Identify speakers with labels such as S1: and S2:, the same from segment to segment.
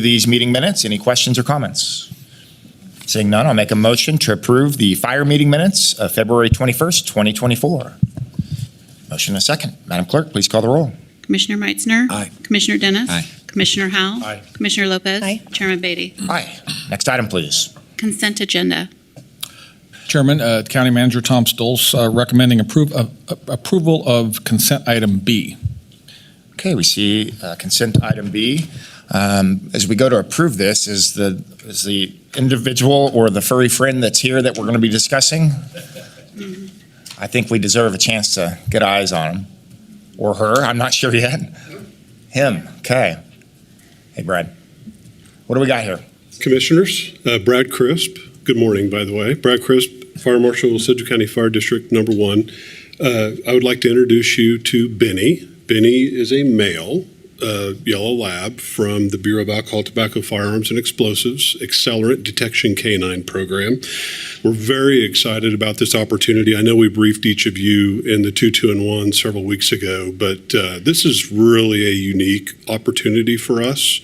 S1: these meeting minutes. Any questions or comments? Seeing none, I'll make a motion to approve the fire meeting minutes of February 21st, 2024. Motion and a second. Madam Clerk, please call the roll.
S2: Commissioner Meitzner.
S3: Aye.
S2: Commissioner Dennis.
S3: Aye.
S2: Commissioner Howell.
S1: Aye.
S2: Commissioner Lopez.
S4: Aye.
S2: Chairman Beatty.
S1: Aye. Next item, please.
S2: Consent agenda.
S5: Chairman, uh, County Manager Tom Stoles uh, recommending approve- uh, approval of consent item B.
S1: Okay, we see uh, consent item B. Um, As we go to approve this, is the, is the individual or the furry friend that's here that we're going to be discussing? I think we deserve a chance to get eyes on him or her. I'm not sure yet. Him, okay. Hey, Brad. What do we got here?
S6: Commissioners, uh, Brad Crisp, good morning, by the way. Brad Crisp, Fire Marshal, Sedgwick County Fire District Number One. Uh, I would like to introduce you to Benny. Benny is a male, uh, yellow lab from the Bureau of Alcohol, Tobacco, Firearms, and Explosives Accelerant Detection Canine Program. We're very excited about this opportunity. I know we briefed each of you in the two, two, and one several weeks ago, but uh, this is really a unique opportunity for us.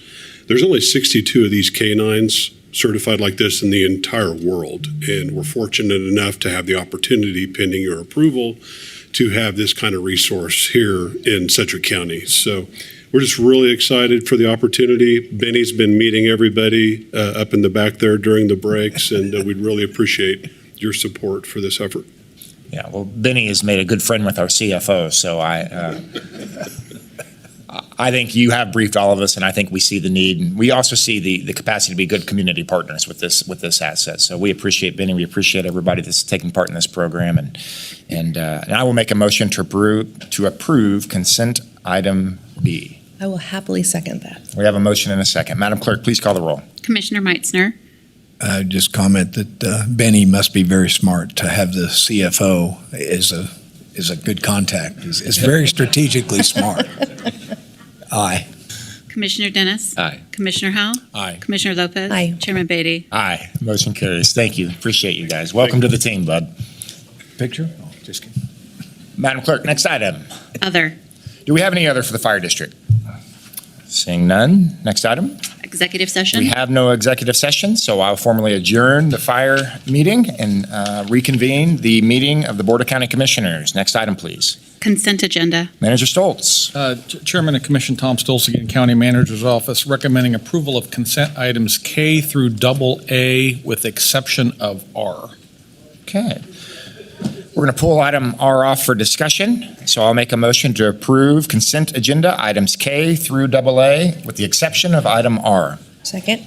S6: There's only 62 of these canines certified like this in the entire world, and we're fortunate enough to have the opportunity, pending your approval, to have this kind of resource here in Sedgwick County. So we're just really excited for the opportunity. Benny's been meeting everybody uh, up in the back there during the breaks, and uh, we'd really appreciate your support for this effort.
S1: Yeah, well, Benny has made a good friend with our CFO, so I, uh, I think you have briefed all of us, and I think we see the need. And we also see the, the capacity to be good community partners with this, with this asset. So we appreciate Benny, we appreciate everybody that's taking part in this program, and, and, uh, and I will make a motion to approve, to approve consent item B.
S4: I will happily second that.
S1: We have a motion and a second. Madam Clerk, please call the roll.
S2: Commissioner Meitzner.
S3: I would just comment that uh, Benny must be very smart to have the CFO is a, is a good contact, is, is very strategically smart. Aye.
S2: Commissioner Dennis.
S3: Aye.
S2: Commissioner Howell.
S3: Aye.
S2: Commissioner Lopez.
S4: Aye.
S2: Chairman Beatty.
S1: Aye, motion carries. Thank you. Appreciate you guys. Welcome to the team, bud.
S3: Picture? Oh, Just kidding.
S1: Madam Clerk, next item.
S2: Other.
S1: Do we have any other for the fire district? Seeing none. Next item.
S2: Executive session.
S1: We have no executive session, so I'll formally adjourn the fire meeting and uh, reconvene the meeting of the Board of County Commissioners. Next item, please.
S2: Consent agenda.
S1: Manager Stoltz.
S5: Uh, Ch- Chairman and Commission Tom Stoles, again, County Manager's Office, recommending approval of consent items K through double A with exception of R.
S1: Okay. We're going to pull item R off for discussion, so I'll make a motion to approve consent agenda items K through double A with the exception of item R.
S4: Second?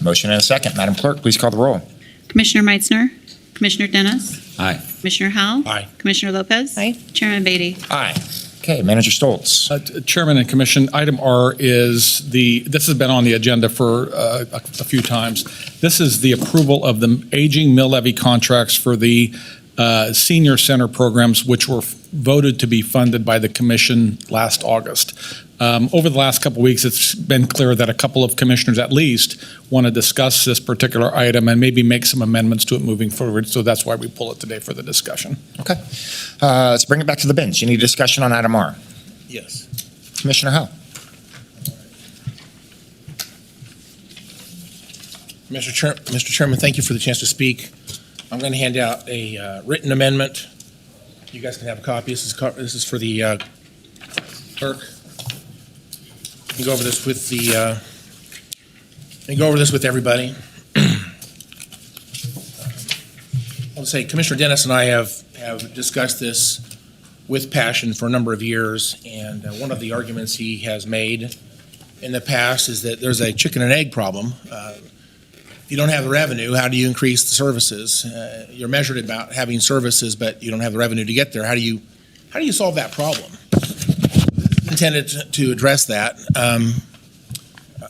S1: Motion and a second. Madam Clerk, please call the roll.
S2: Commissioner Meitzner. Commissioner Dennis.
S3: Aye.
S2: Commissioner Howell.
S1: Aye.
S2: Commissioner Lopez.
S4: Aye.
S2: Chairman Beatty.
S1: Aye. Okay, Manager Stoltz.
S5: Uh, Ch- Chairman and Commission, item R is the, this has been on the agenda for uh, a a few times. This is the approval of the aging mill levy contracts for the uh, senior center programs, which were voted to be funded by the commission last August. Um, Over the last couple of weeks, it's been clear that a couple of commissioners at least want to discuss this particular item and maybe make some amendments to it moving forward. So that's why we pull it today for the discussion.
S1: Okay. Uh, Let's bring it back to the bench. Any discussion on item R?
S3: Yes.
S1: Commissioner Howe?
S7: Mr. Chair, Mr. Chairman, thank you for the chance to speak. I'm going to hand out a uh, written amendment. You guys can have a copy. This is, co- this is for the uh, clerk. You can go over this with the, uh, you can go over this with everybody. I'll say Commissioner Dennis and I have, have discussed this with passion for a number of years, and uh, one of the arguments he has made in the past is that there's a chicken and egg problem. Uh, if you don't have the revenue, how do you increase the services? Uh, You're measured about having services, but you don't have the revenue to get there. How do you, how do you solve that problem? Intended to- to address that. Um,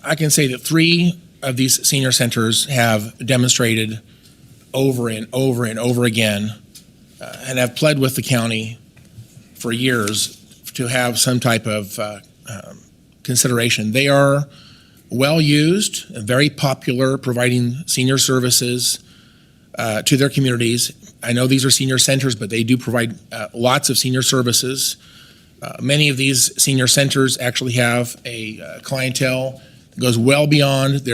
S7: I can say that three of these senior centers have demonstrated over and over and over again, uh, and have pled with the county for years to have some type of uh, um, consideration. They are well-used, very popular, providing senior services uh, to their communities. I know these are senior centers, but they do provide uh, lots of senior services. Uh, Many of these senior centers actually have a uh, clientele goes well beyond their